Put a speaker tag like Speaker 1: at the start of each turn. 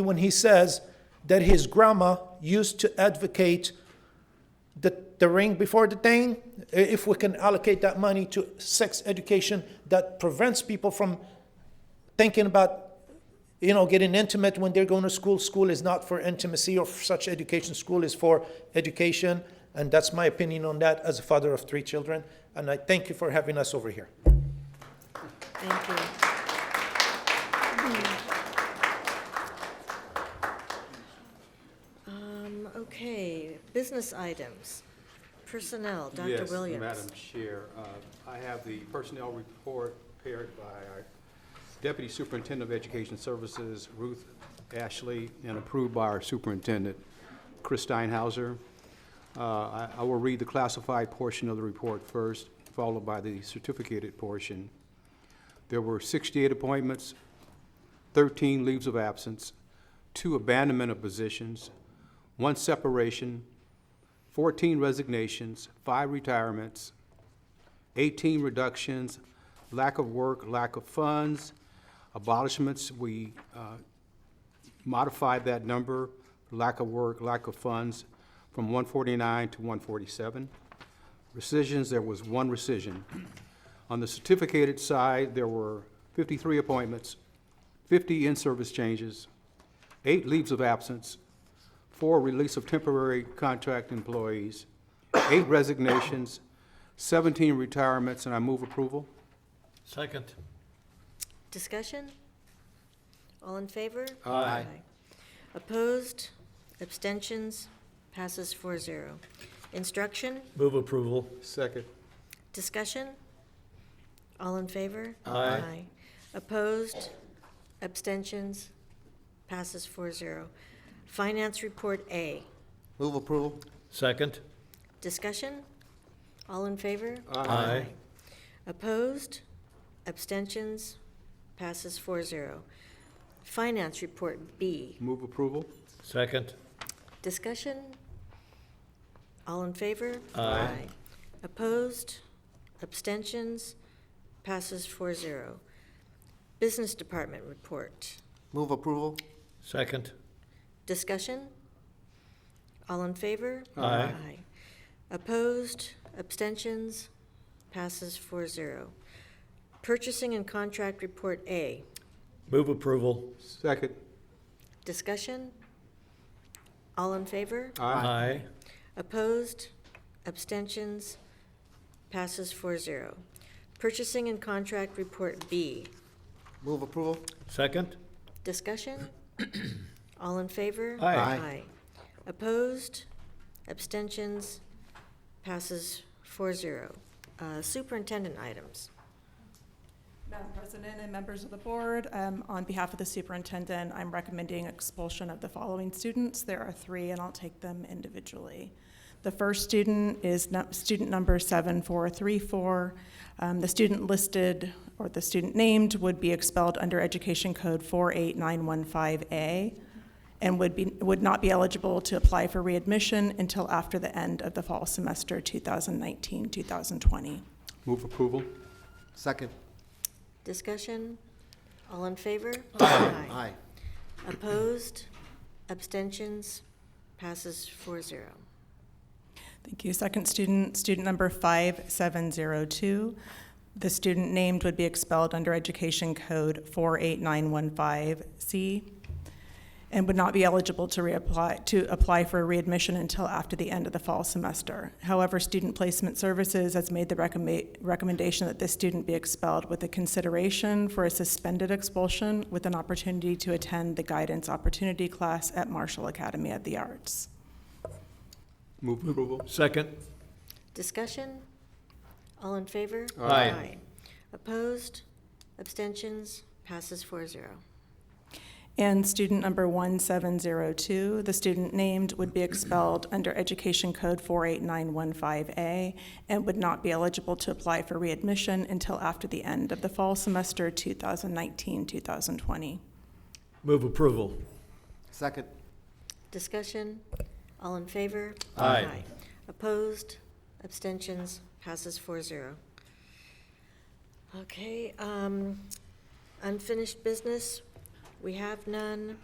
Speaker 1: when he says that his grandma used to advocate the, the ring before the thing, i- if we can allocate that money to sex education that prevents people from thinking about you know getting intimate when they're going to school school is not for intimacy or for such education school is for education and that's my opinion on that as a father of three children and i thank you for having us over here
Speaker 2: Thank you. Um, Okay, business items. Personnel, Dr. Williams.
Speaker 3: Yes, Madam Chair, uh, I have the personnel report prepared by our Deputy Superintendent of Education Services, Ruth Ashley, and approved by our Superintendent, Chris Steinhauser. Uh, I I will read the classified portion of the report first, followed by the certificated portion. There were 68 appointments, 13 leaves of absence, two abandonment of positions, one separation, 14 resignations, five retirements, 18 reductions, lack of work, lack of funds, abolishments, we uh, modified that number, lack of work, lack of funds, from 149 to 147. Rescissions, there was one rescission. On the certificated side, there were 53 appointments, 50 in-service changes, eight leaves of absence, four release of temporary contract employees, eight resignations, 17 retirements, and I move approval.
Speaker 4: Second.
Speaker 2: Discussion? All in favor?
Speaker 3: Aye.
Speaker 2: Opposed? Abstentions? Passes 4-0. Instruction?
Speaker 4: Move approval.
Speaker 3: Second.
Speaker 2: Discussion? All in favor?
Speaker 4: Aye.
Speaker 2: Opposed? Abstentions? Passes 4-0. Finance Report A.
Speaker 5: Move approval?
Speaker 4: Second.
Speaker 2: Discussion? All in favor?
Speaker 4: Aye.
Speaker 2: Opposed? Abstentions? Passes 4-0. Finance Report B.
Speaker 3: Move approval.
Speaker 4: Second.
Speaker 2: Discussion? All in favor?
Speaker 4: Aye.
Speaker 2: Opposed? Abstentions? Passes 4-0. Business Department Report.
Speaker 5: Move approval?
Speaker 4: Second.
Speaker 2: Discussion? All in favor?
Speaker 4: Aye.
Speaker 2: Opposed? Abstentions? Passes 4-0. Purchasing and Contract Report A.
Speaker 4: Move approval.
Speaker 3: Second.
Speaker 2: Discussion? All in favor?
Speaker 4: Aye.
Speaker 2: Opposed? Abstentions? Passes 4-0. Purchasing and Contract Report B.
Speaker 5: Move approval?
Speaker 4: Second.
Speaker 2: Discussion? All in favor?
Speaker 4: Aye.
Speaker 5: Aye.
Speaker 2: Opposed? Abstentions? Passes 4-0. Uh, Superintendent items.
Speaker 6: Madam President and members of the board, um, on behalf of the superintendent, I'm recommending expulsion of the following students. There are three, and I'll take them individually. The first student is nu- student number 7434. Um, The student listed, or the student named, would be expelled under Education Code 48915A and would be, would not be eligible to apply for readmission until after the end of the fall semester 2019, 2020.
Speaker 3: Move approval.
Speaker 5: Second?
Speaker 2: Discussion? All in favor? Aye.
Speaker 5: Aye.
Speaker 2: Opposed? Abstentions? Passes 4-0.
Speaker 6: Thank you. Second student, student number 5702. The student named would be expelled under Education Code 48915C and would not be eligible to reapply, to apply for readmission until after the end of the fall semester. However, Student Placement Services has made the recommend, recommendation that this student be expelled with a consideration for a suspended expulsion with an opportunity to attend the Guidance Opportunity Class at Marshall Academy of the Arts.
Speaker 3: Move approval.
Speaker 4: Second.
Speaker 2: Discussion? All in favor?
Speaker 4: Aye.
Speaker 2: Opposed? Abstentions? Passes 4-0.
Speaker 6: And student number 1702, the student named would be expelled under Education Code 48915A and would not be eligible to apply for readmission until after the end of the fall semester 2019-2020.
Speaker 4: Move approval.
Speaker 5: Second?
Speaker 2: Discussion? All in favor?
Speaker 4: Aye.
Speaker 2: Opposed? Abstentions? Passes 4-0. Okay, um, unfinished business, we have none.